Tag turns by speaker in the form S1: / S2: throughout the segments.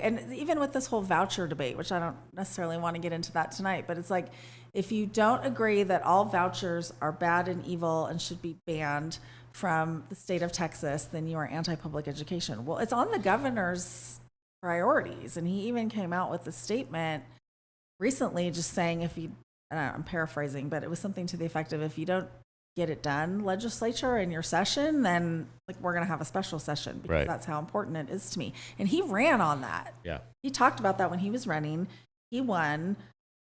S1: And even with this whole voucher debate, which I don't necessarily want to get into that tonight, but it's like, if you don't agree that all vouchers are bad and evil and should be banned from the state of Texas, then you are anti-public education. Well, it's on the governor's priorities, and he even came out with a statement recently, just saying if you, and I- I'm paraphrasing, but it was something to the effect of if you don't get it done, legislature, in your session, then like we're gonna have a special session because
S2: Right.
S1: that's how important it is to me. And he ran on that.
S2: Yeah.
S1: He talked about that when he was running. He won.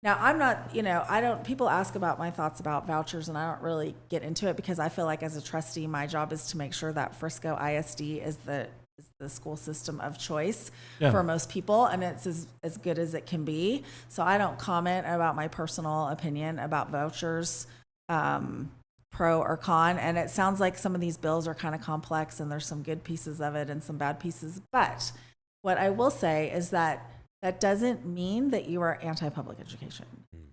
S1: Now, I'm not, you know, I don't, people ask about my thoughts about vouchers and I don't really get into it because I feel like as a trustee, my job is to make sure that Frisco ISD is the, is the school system of choice
S3: Yeah.
S1: for most people and it's as, as good as it can be. So I don't comment about my personal opinion about vouchers, um, pro or con. And it sounds like some of these bills are kind of complex and there's some good pieces of it and some bad pieces. But what I will say is that that doesn't mean that you are anti public education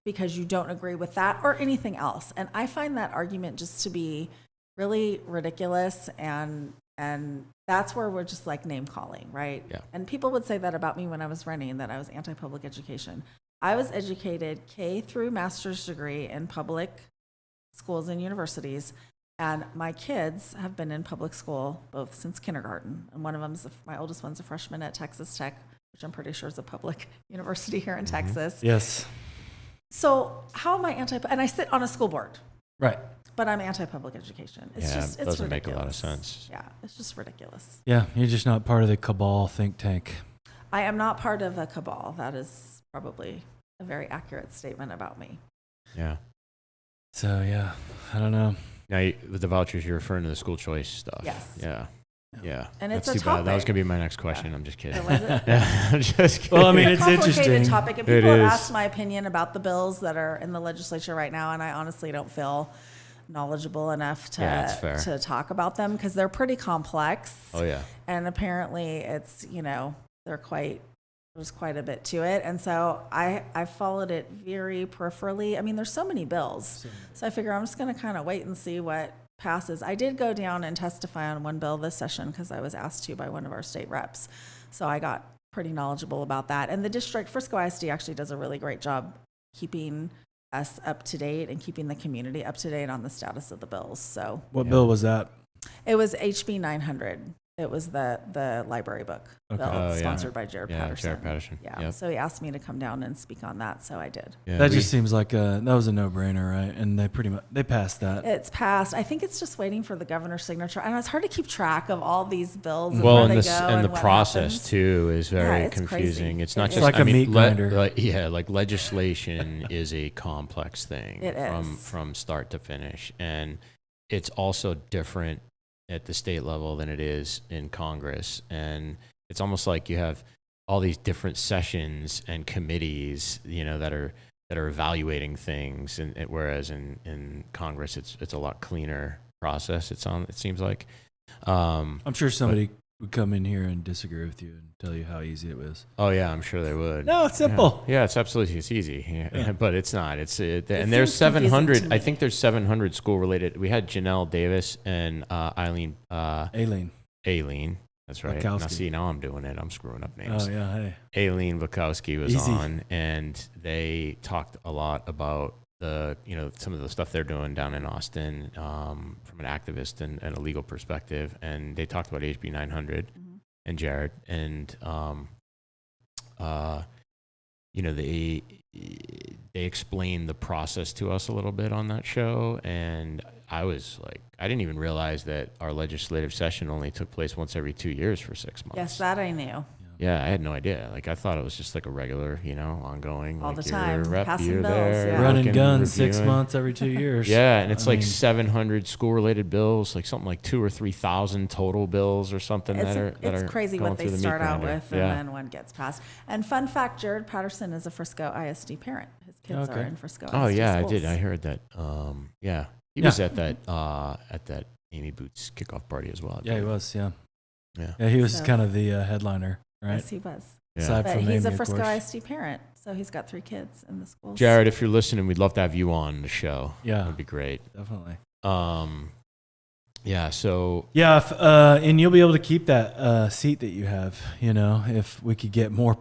S1: because you don't agree with that or anything else. And I find that argument just to be really ridiculous and and that's where we're just like name calling, right?
S2: Yeah.
S1: And people would say that about me when I was running that I was anti public education. I was educated K through master's degree in public schools and universities. And my kids have been in public school both since kindergarten. And one of them's a, my oldest one's a freshman at Texas Tech, which I'm pretty sure is a public university here in Texas.
S3: Yes.
S1: So how am I anti? And I sit on a school board,
S3: Right.
S1: but I'm anti-public education. It's
S2: Yeah,
S1: just
S2: it
S1: it's
S2: doesn't make a lot of
S1: ridiculous.
S2: sense.
S1: Yeah, it's just ridiculous.
S3: Yeah. You're just not part of the cabal think tank.
S1: I am not part of a cabal. That is probably a very accurate statement about me.
S2: Yeah.
S3: So yeah, I don't know.
S2: Now you, with the vouchers, you're referring to the school choice stuff.
S1: Yes.
S2: Yeah. Yeah.
S1: And
S2: That's
S1: it's a
S2: too bad. That was
S1: topic.
S2: gonna be my next question. I'm just kidding.
S1: So was it?
S2: Yeah, I'm just kidding.
S3: Well, I mean,
S1: a
S3: it's
S1: complicated
S3: interesting.
S1: topic, and
S2: It
S1: people have
S2: is.
S1: asked my opinion about the bills that are in the legislature right now, and I honestly don't feel knowledgeable enough to
S2: Yeah, that's fair.
S1: to talk about them because they're pretty complex,
S2: oh yeah.
S1: and apparently it's you know they're quite there's quite a bit to it, and so I I followed it very peripherally. I mean, there's so many bills, so I figure I'm just going to kind of wait and see what passes. I did go down and testify on one bill this session because I was asked to by one of our state reps. So I got pretty knowledgeable about that. And the district, Frisco ISD actually does a really great job keeping us up to date and keeping the community up to date on the status of the bills. So
S3: What bill was that?
S1: it was HB 900. It was the, the library book
S3: Okay.
S1: bill
S2: Oh, yeah.
S1: sponsored by Jared
S2: Yeah,
S1: Patterson.
S2: Jared Patterson.
S1: Yeah.
S2: Yep.
S1: So he asked me to come down and speak on that. So I did.
S2: Yeah,
S3: that
S2: we-
S3: just seems like a that was a no brainer, right? And they pretty much they passed
S2: Uh,
S3: that.
S1: It's passed. I think it's just waiting for the governor's signature. I know it's hard to keep track of all these bills. And
S2: well,
S1: where
S2: and
S1: they
S2: this
S1: go
S2: and the
S1: what
S2: process
S1: happens.
S2: too is very
S1: Yeah, it's
S2: confusing.
S1: crazy.
S2: It's not
S1: It
S2: just
S1: is.
S3: Like a
S2: I mean,
S3: meat grinder.
S2: like- yeah, like legislation is a complex thing
S1: It
S2: from
S1: is.
S2: from start to finish, and it's also different at the state level than it is in Congress, and it's almost like you have all these different sessions and committees, you know, that are that are evaluating things, and, and whereas in in Congress, it's it's a lot cleaner process. It's on. It seems like. Um,
S3: I'm sure somebody would come in here and disagree with you and tell you how easy it was.
S2: Oh yeah, I'm sure they would.
S3: No, it's simple.
S2: Yeah, it's absolutely it's easy, yeah.
S3: Yeah.
S2: but it's not. It's it, and
S1: seems
S2: there's
S1: confusing to
S2: 700. I
S1: me.
S2: think there's 700 school related. We had Janelle Davis and uh, Eileen uh,
S3: Aileen.
S2: Aileen. That's right. Now
S3: Bukowski.
S2: see, now I'm doing it. I'm screwing up names.
S3: Oh yeah, hey.
S2: Aileen Bukowski was
S3: Easy.
S2: on, and they talked a lot about the you know some of the stuff they're doing down in Austin um, from an activist and, and a legal perspective, and they talked about HB 900
S1: Mhm.
S2: and Jared, and um, uh, you know they they explained the process to us a little bit on that show, and I was like, I didn't even realize that our legislative session only took place once every two years for six months.
S1: Yes, that I knew.
S2: Yeah, I had no idea. Like I thought it was just like a regular, you know, ongoing.
S1: All
S2: like,
S1: the
S2: you're a
S1: time,
S2: rep,
S1: passing
S2: you're
S1: bills,
S2: there,
S1: yeah.
S3: Run and
S2: looking,
S3: gun six
S2: reviewing.
S3: months every two years.
S2: Yeah, and it's
S3: I
S2: like
S3: mean-
S2: 700 school-related bills, like something like two or three thousand total bills or something
S1: It's,
S2: that are that
S1: it's
S2: are
S1: crazy
S2: going
S1: what they
S2: through the meat
S1: start out
S2: grinder.
S1: with
S2: Yeah.
S1: and then one gets passed. And fun fact Jared Patterson is a Frisco ISD parent. His kids are
S3: Okay.
S1: in Frisco.
S2: oh
S1: ISD
S2: yeah, I
S1: schools.
S2: did. I heard that. Um, yeah, he
S3: Yeah.
S2: was at that uh, at that Amy Boots kickoff party as well. I
S3: Yeah, he
S2: believe.
S3: was. Yeah.
S2: Yeah.
S3: Yeah, he was
S1: So-
S3: kind of the uh, headliner, right?
S1: Yes, he was.
S2: Yeah.
S3: Aside
S1: But
S3: from
S1: he's
S3: Amy,
S1: a
S3: of
S1: Frisco
S3: course.
S1: ISD parent, so he's got three kids in the schools.
S2: Jared, if you're listening, we'd love to have you on the show.
S3: Yeah,
S2: That'd be great.
S3: definitely.
S2: Um, Yeah. So
S3: Yeah, if, uh, and you'll be able to keep that uh, seat that you have. You know, if we could get more